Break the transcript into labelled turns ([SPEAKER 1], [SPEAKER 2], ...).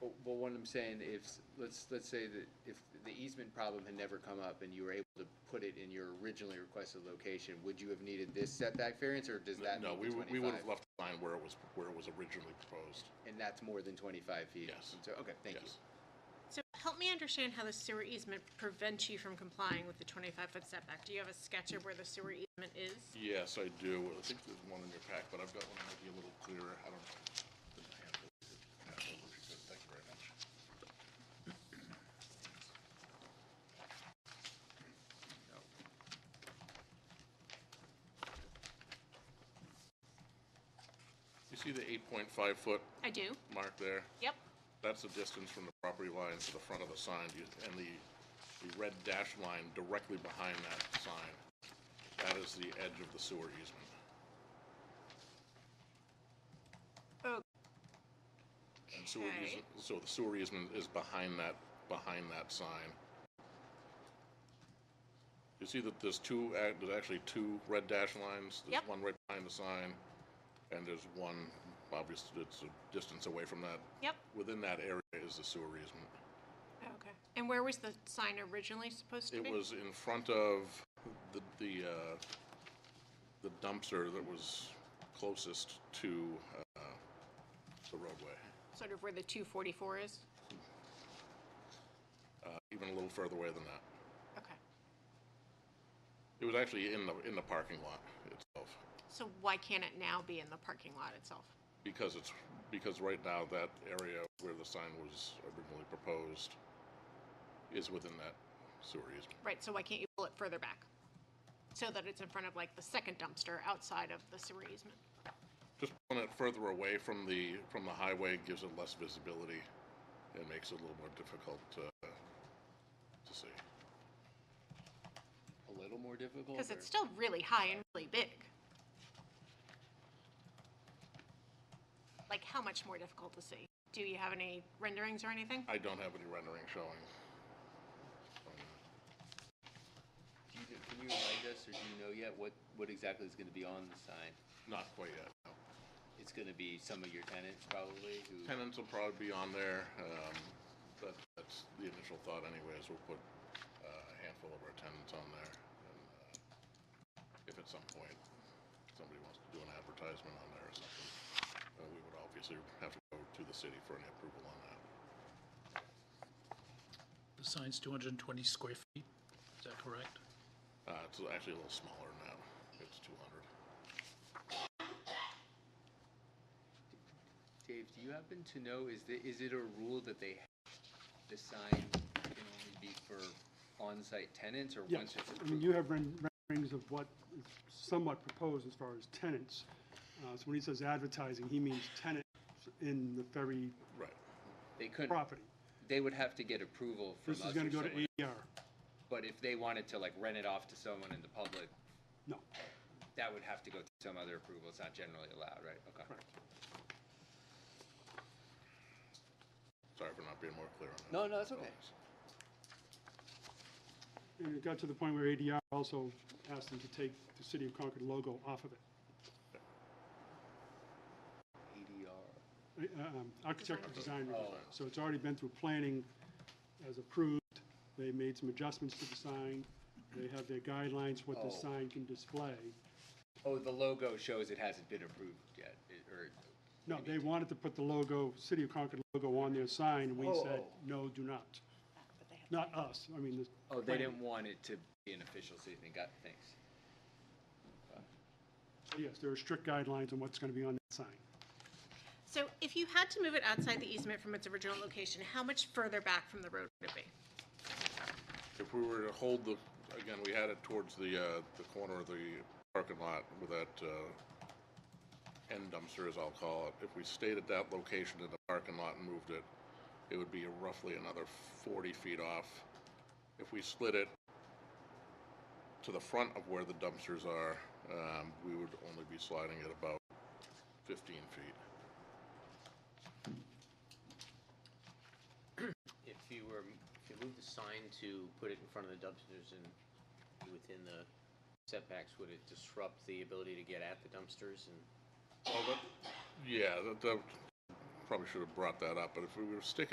[SPEAKER 1] Well, well, what I'm saying, if, let's, let's say that if the easement problem had never come up and you were able to put it in your originally requested location, would you have needed this setback variance, or does that
[SPEAKER 2] No,
[SPEAKER 1] meet
[SPEAKER 2] we,
[SPEAKER 1] the
[SPEAKER 2] would- we would have
[SPEAKER 1] 25?
[SPEAKER 2] left the line where it was, where it was originally proposed.
[SPEAKER 1] And that's more than twenty-five feet?
[SPEAKER 2] Yes.
[SPEAKER 1] So, okay, thank you.
[SPEAKER 2] Yes.
[SPEAKER 3] So help me understand how the sewer easement prevents you from complying with the 25-foot setback. Do you have a sketch of where the sewer easement is?
[SPEAKER 2] Yes, I do. I think there's one in your pack, but I've got one that might be a little clearer. I don't. didn't have it. Have it if you could. Thank you very much. You see the eight point five foot
[SPEAKER 3] I do.
[SPEAKER 2] mark there?
[SPEAKER 3] Yep.
[SPEAKER 2] That's the distance from the property line to the front of the sign, you- and the, the red dashed line directly behind that sign. That is the edge of the sewer easement.
[SPEAKER 3] Oh.
[SPEAKER 2] And sewer
[SPEAKER 3] Okay.
[SPEAKER 2] easement, so the sewer easement is behind that, behind that sign. You see that there's two, ac- there's actually two red dash lines?
[SPEAKER 3] Yep.
[SPEAKER 2] There's one right behind the sign, and there's one, obviously, it's a distance away from that.
[SPEAKER 3] Yep.
[SPEAKER 2] Within that area is the sewer easement.
[SPEAKER 3] Oh, Okay. And where was the sign originally supposed to be?
[SPEAKER 2] It was in front of the, the, uh, the dumpster that was closest to, uh, the roadway.
[SPEAKER 3] Sort of where the 244 is?
[SPEAKER 2] Uh, even a little further away than that.
[SPEAKER 3] Okay.
[SPEAKER 2] It was actually in the, in the parking lot itself,
[SPEAKER 3] So why can't it now be in the parking lot itself?
[SPEAKER 2] because it's, because right now that area where the sign was originally proposed is within that sewer easement.
[SPEAKER 3] Right, so why can't you pull it further back? So that it's in front of like the second dumpster outside of the sewer easement?
[SPEAKER 2] Just pulling it further away from the, from the highway gives it less visibility and makes it a little more difficult to, to see.
[SPEAKER 1] A little more difficult?
[SPEAKER 3] Because
[SPEAKER 1] or-
[SPEAKER 3] it's still really high and really big. Like, how much more difficult to see? Do you have any renderings or anything?
[SPEAKER 2] I don't have any rendering showing. Um,
[SPEAKER 1] Do you- Can you remind us, or do you know yet, what, what exactly is gonna be on the sign?
[SPEAKER 2] Not quite yet, no.
[SPEAKER 1] It's gonna be some of your tenants probably, who,
[SPEAKER 2] Tenants will probably be on there, um, that, that's the initial thought anyways, we'll put uh, a handful of our tenants on there. and, uh, If at some point somebody wants to do an advertisement on there or something, uh, we would obviously have to go to the city for an approval on that.
[SPEAKER 4] The sign's 220 square feet, is that correct?
[SPEAKER 2] Uh, it's actually a little smaller now, it's two hundred.
[SPEAKER 1] Dave, do you happen to know, is the, is it a rule that they, the sign can only be for on-site tenants, or once
[SPEAKER 5] Yes,
[SPEAKER 1] it's
[SPEAKER 5] I mean,
[SPEAKER 1] approved?
[SPEAKER 5] you have ren- renderings of what is somewhat proposed as far as tenants. Uh, So when he says advertising, he means tenants in the ferry
[SPEAKER 2] Right.
[SPEAKER 1] They couldn't,
[SPEAKER 5] property.
[SPEAKER 1] they would have to get approval from
[SPEAKER 5] This
[SPEAKER 1] us or
[SPEAKER 5] is going to go
[SPEAKER 1] someone.
[SPEAKER 5] to ADR.
[SPEAKER 1] But if they wanted to like rent it off to someone in the public,
[SPEAKER 5] No,
[SPEAKER 1] that would have to go through some other approval. It's not generally allowed, right? Okay.
[SPEAKER 5] correct.
[SPEAKER 2] Sorry for not being more clear on that.
[SPEAKER 1] No, no, that's okay.
[SPEAKER 5] And it got to the point where ADR also asked them to take the City of Concord logo off of it.
[SPEAKER 1] ADR.
[SPEAKER 5] Uh, um, Architectural design review.
[SPEAKER 1] Oh.
[SPEAKER 5] So it's already been through planning as approved. They made some adjustments to the sign. They have their guidelines, what the
[SPEAKER 1] Oh.
[SPEAKER 5] sign can display.
[SPEAKER 1] Oh, the logo shows it hasn't been approved yet, it- or,
[SPEAKER 5] No, they wanted to put the logo, City of Concord logo on their sign, and we said,
[SPEAKER 1] Oh.
[SPEAKER 5] no, do not. Not us, I mean, the.
[SPEAKER 1] oh, they didn't want it to be an official city thing. Got, thanks.
[SPEAKER 5] Yes, there are strict guidelines on what's gonna be on that sign.
[SPEAKER 3] So if you had to move it outside the easement from its original location, how much further back from the road would it be?
[SPEAKER 2] If we were to hold the, again, we had it towards the, uh, the corner of the parking lot with that, uh, end dumpster, as I'll call it. If we stayed at that location in the parking lot and moved it, it would be roughly another forty feet off. If we slid it to the front of where the dumpsters are, um, we would only be sliding it about fifteen feet.
[SPEAKER 6] If you were, if you moved the sign to put it in front of the dumpsters and within the setbacks, would it disrupt the ability to get at the dumpsters and?
[SPEAKER 2] Well, that, yeah, that, that, probably should have brought that up, but if we were sticking